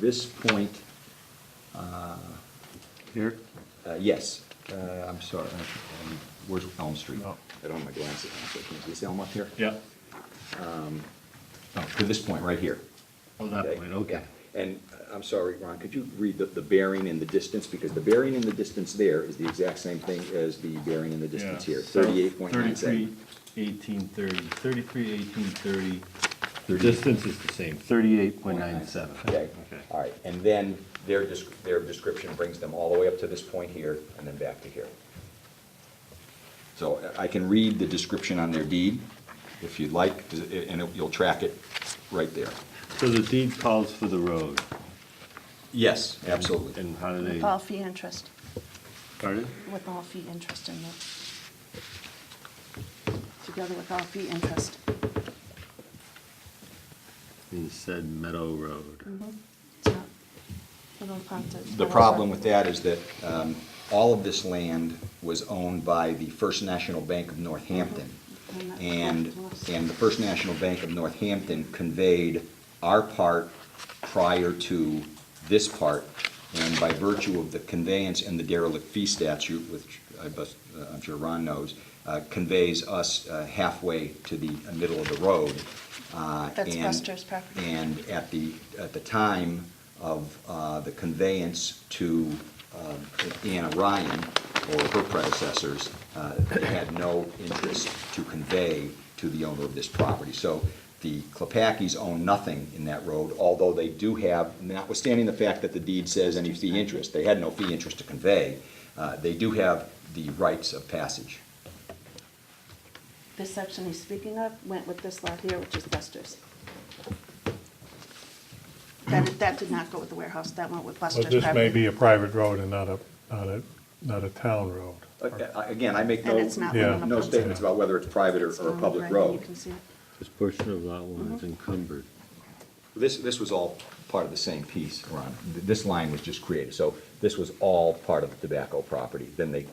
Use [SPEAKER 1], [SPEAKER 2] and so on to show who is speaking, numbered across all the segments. [SPEAKER 1] this point, uh,
[SPEAKER 2] Here?
[SPEAKER 1] uh, yes, uh, I'm sorry, um, where's Elm Street?
[SPEAKER 2] No.
[SPEAKER 1] I don't have my glasses on, so I can't see. Is Elm up here?
[SPEAKER 2] Oh. Yeah.
[SPEAKER 1] No, to this point, right here.
[SPEAKER 2] Oh, that
[SPEAKER 1] Okay,
[SPEAKER 2] point, okay.
[SPEAKER 1] yeah. And uh, I'm sorry, Ron, could you read the, the bearing and the distance? Because the bearing and the distance there is the exact same thing as the bearing and the distance here, thirty-eight point nine seven.
[SPEAKER 2] Thirty-three, eighteen, thirty, thirty-three, eighteen, thirty.
[SPEAKER 1] Thirty-
[SPEAKER 2] Distance is the same, thirty-eight point nine seven.
[SPEAKER 1] Okay, all right. And then their, desc- their description brings them all the way up to this point here and then back to here. So I I can read the description on their deed if you'd like, 'cause it- and it- you'll track it right there.
[SPEAKER 2] So the deed calls for the road.
[SPEAKER 1] Yes, absolutely.
[SPEAKER 2] And how do
[SPEAKER 3] With
[SPEAKER 2] they,
[SPEAKER 3] all fee interest,
[SPEAKER 2] pardon?
[SPEAKER 3] with all fee interest in it. Together with all fee interest.
[SPEAKER 4] Mm-hmm.
[SPEAKER 2] In said Meadow
[SPEAKER 3] Mm-hmm.
[SPEAKER 2] Road.
[SPEAKER 3] It's not- we don't count it.
[SPEAKER 1] The problem with that is that um, all of this land was owned by the First National Bank of Northampton. And, and the First National Bank of Northampton conveyed our part prior to this part. And by virtue of the conveyance and the derelict fee statute, which I bus- uh, I'm sure Ron knows, uh, conveys us uh, halfway to the middle of the road. uh,
[SPEAKER 3] That's
[SPEAKER 1] and-
[SPEAKER 3] Buster's property.
[SPEAKER 1] And at the, at the time of uh, the conveyance to uh, Anna Ryan or her predecessors, uh, they had no interest to convey to the owner of this property. So the Klepakis own nothing in that road, although they do have, notwithstanding the fact that the deed says any fee interest, they had no fee interest to convey, uh, they do have the rights of passage.
[SPEAKER 3] This section he's speaking of went with this lot here, which is Buster's. That, that did not go with the warehouse, that went with Buster's
[SPEAKER 5] But
[SPEAKER 3] property.
[SPEAKER 5] this may be a private road and not a, not a, not a town road.
[SPEAKER 1] Uh, uh, Again, I make no,
[SPEAKER 3] And it's not
[SPEAKER 5] Yeah. one of
[SPEAKER 1] no
[SPEAKER 3] those.
[SPEAKER 1] statements about whether it's private or
[SPEAKER 3] It's
[SPEAKER 1] or a
[SPEAKER 3] on
[SPEAKER 1] public
[SPEAKER 3] the right,
[SPEAKER 1] road.
[SPEAKER 3] You can see it.
[SPEAKER 2] This portion of lot one
[SPEAKER 3] Mm-hmm.
[SPEAKER 2] is encumbered.
[SPEAKER 1] This, this was all part of the same piece, Ron. Th- This line was just created, so this was all part of the tobacco property. Then they,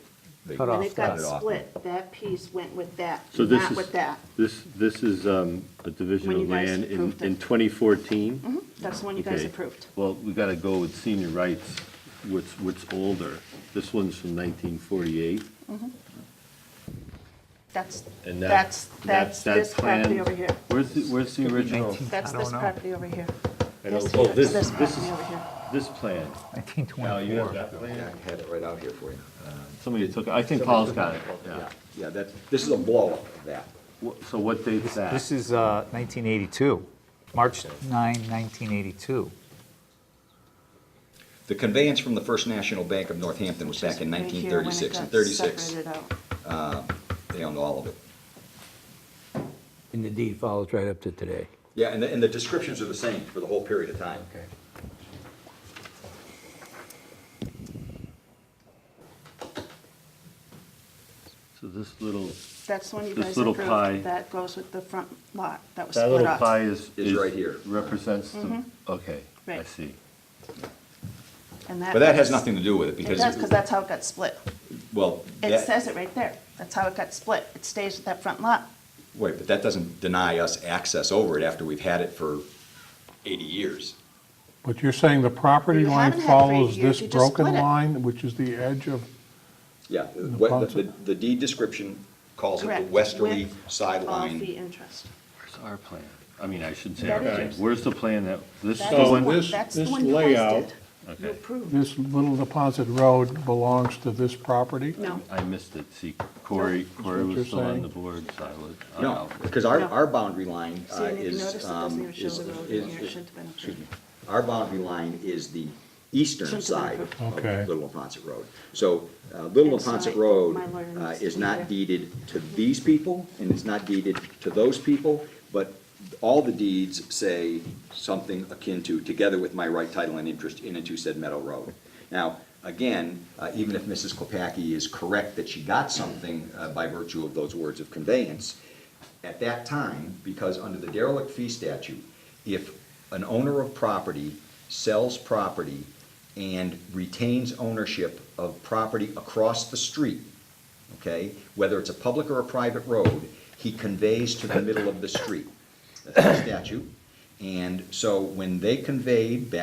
[SPEAKER 1] they
[SPEAKER 4] Cut
[SPEAKER 3] And
[SPEAKER 4] off
[SPEAKER 3] it got
[SPEAKER 1] it off.
[SPEAKER 3] split, that piece went with that,
[SPEAKER 2] So this
[SPEAKER 3] not
[SPEAKER 2] is-
[SPEAKER 3] with that.
[SPEAKER 2] This, this is um, a division
[SPEAKER 3] When
[SPEAKER 2] of
[SPEAKER 3] you guys
[SPEAKER 2] land in,
[SPEAKER 3] approved it. Mm-hmm.
[SPEAKER 2] in twenty fourteen?
[SPEAKER 3] That's the one you guys
[SPEAKER 2] Okay.
[SPEAKER 3] approved.
[SPEAKER 2] Well, we gotta go with senior rights, what's, what's older. This one's from nineteen forty-eight.
[SPEAKER 3] That's,
[SPEAKER 2] And that-
[SPEAKER 3] that's,
[SPEAKER 2] that's-
[SPEAKER 3] that's
[SPEAKER 2] that
[SPEAKER 3] this property
[SPEAKER 2] plan-
[SPEAKER 3] over here.
[SPEAKER 2] Where's the, where's the original?
[SPEAKER 3] That's
[SPEAKER 4] I don't
[SPEAKER 3] this
[SPEAKER 4] know.
[SPEAKER 3] property over here.
[SPEAKER 2] I don't-
[SPEAKER 3] This
[SPEAKER 2] oh,
[SPEAKER 3] here,
[SPEAKER 2] this-
[SPEAKER 3] this
[SPEAKER 2] this
[SPEAKER 3] property
[SPEAKER 2] is-
[SPEAKER 3] over here.
[SPEAKER 2] This plan. Now, you have
[SPEAKER 4] 1924.
[SPEAKER 2] that
[SPEAKER 1] Yeah,
[SPEAKER 2] plan?
[SPEAKER 1] I had it right out here for you.
[SPEAKER 2] Somebody took, it. I think Paul's got it, yeah.
[SPEAKER 1] Yeah, that, this is a blow-up of that.
[SPEAKER 2] Wha- So what date's that?
[SPEAKER 4] This is uh, 1982, March 9, 1982.
[SPEAKER 1] The conveyance from the First National Bank of Northampton was back in
[SPEAKER 3] Right
[SPEAKER 1] nineteen
[SPEAKER 3] here when it
[SPEAKER 1] thirty-six,
[SPEAKER 3] got
[SPEAKER 1] and thirty-six,
[SPEAKER 3] separated out.
[SPEAKER 1] they owned all of it.
[SPEAKER 6] And the deed follows right up to today.
[SPEAKER 1] Yeah, and the, and the descriptions are the same for the whole period of time.
[SPEAKER 6] Okay.
[SPEAKER 2] So this little,
[SPEAKER 3] That's the one you
[SPEAKER 2] This
[SPEAKER 3] guys
[SPEAKER 2] little pie.
[SPEAKER 3] approved. That goes with the front lot that was
[SPEAKER 2] that
[SPEAKER 3] split
[SPEAKER 2] little
[SPEAKER 3] up. Mm-hmm.
[SPEAKER 2] pie is.
[SPEAKER 1] Is right here.
[SPEAKER 2] Represents the, okay, I
[SPEAKER 3] Right.
[SPEAKER 2] see.
[SPEAKER 3] And
[SPEAKER 1] But that has nothing to do with it,
[SPEAKER 3] It
[SPEAKER 1] because.
[SPEAKER 3] does, because that's how it got split.
[SPEAKER 1] Well,
[SPEAKER 3] It
[SPEAKER 1] that-
[SPEAKER 3] says it right there. That's how it got split. It stays with that front lot.
[SPEAKER 1] Wait, but that doesn't deny us access over it after we've had it for eighty years.
[SPEAKER 5] But you're saying the property
[SPEAKER 3] You
[SPEAKER 5] line
[SPEAKER 3] haven't had three
[SPEAKER 5] follows
[SPEAKER 3] years,
[SPEAKER 5] this
[SPEAKER 3] you just
[SPEAKER 5] broken
[SPEAKER 3] split it.
[SPEAKER 5] line, which is the edge of,
[SPEAKER 1] Yeah,
[SPEAKER 5] The
[SPEAKER 1] what, the-
[SPEAKER 5] concept-
[SPEAKER 1] the the deed description calls it the
[SPEAKER 3] Correct.
[SPEAKER 1] westerly
[SPEAKER 3] With All fee
[SPEAKER 1] sideline.
[SPEAKER 3] interest.
[SPEAKER 2] Where's our plan? I mean, I shouldn't say our
[SPEAKER 3] That is
[SPEAKER 2] plan.
[SPEAKER 3] yours.
[SPEAKER 2] Where's the plan that, this
[SPEAKER 3] That's
[SPEAKER 2] the
[SPEAKER 3] the
[SPEAKER 2] one?
[SPEAKER 3] one,
[SPEAKER 5] this-
[SPEAKER 3] that's the
[SPEAKER 5] this
[SPEAKER 3] one you
[SPEAKER 5] layout-
[SPEAKER 3] guys did. You
[SPEAKER 2] Okay.
[SPEAKER 3] approved.
[SPEAKER 5] this little deposit road belongs to this property?
[SPEAKER 3] No,
[SPEAKER 1] Uh,
[SPEAKER 2] I missed it, see, Corey, Corey
[SPEAKER 5] what you're
[SPEAKER 2] was still on
[SPEAKER 5] saying.
[SPEAKER 2] the board, so I was. I
[SPEAKER 1] No,
[SPEAKER 2] don't know.
[SPEAKER 1] because our,
[SPEAKER 3] No.
[SPEAKER 1] our boundary line uh,
[SPEAKER 3] See, and if you notice,
[SPEAKER 1] is,
[SPEAKER 3] it
[SPEAKER 1] um,
[SPEAKER 3] doesn't even show
[SPEAKER 1] is,
[SPEAKER 3] the road
[SPEAKER 1] is-
[SPEAKER 3] in here. It
[SPEAKER 1] is-
[SPEAKER 3] should have been approved.
[SPEAKER 1] excuse me, our boundary line is the eastern
[SPEAKER 3] Shouldn't have
[SPEAKER 1] side
[SPEAKER 3] been
[SPEAKER 5] approved. Okay.
[SPEAKER 1] of Little Napontet Road. So, uh, Little
[SPEAKER 3] I'm sorry,
[SPEAKER 1] Napontet Road
[SPEAKER 3] my lawyer
[SPEAKER 1] uh,
[SPEAKER 3] needs
[SPEAKER 1] is
[SPEAKER 3] to be there.
[SPEAKER 1] not deeded to these people, and it's not deeded to those people, but all the deeds say something akin to, together with my right title and interest in and to said Meadow Road. Now, again, uh, even if Mrs. Klepacki is correct that she got something uh, by virtue of those words of conveyance, at that time, because under the derelict fee statute, if an owner of property sells property and retains ownership of property across the street, okay, whether it's a public or a private road, he conveys to the middle of the street. That's the statute. And so when they conveyed back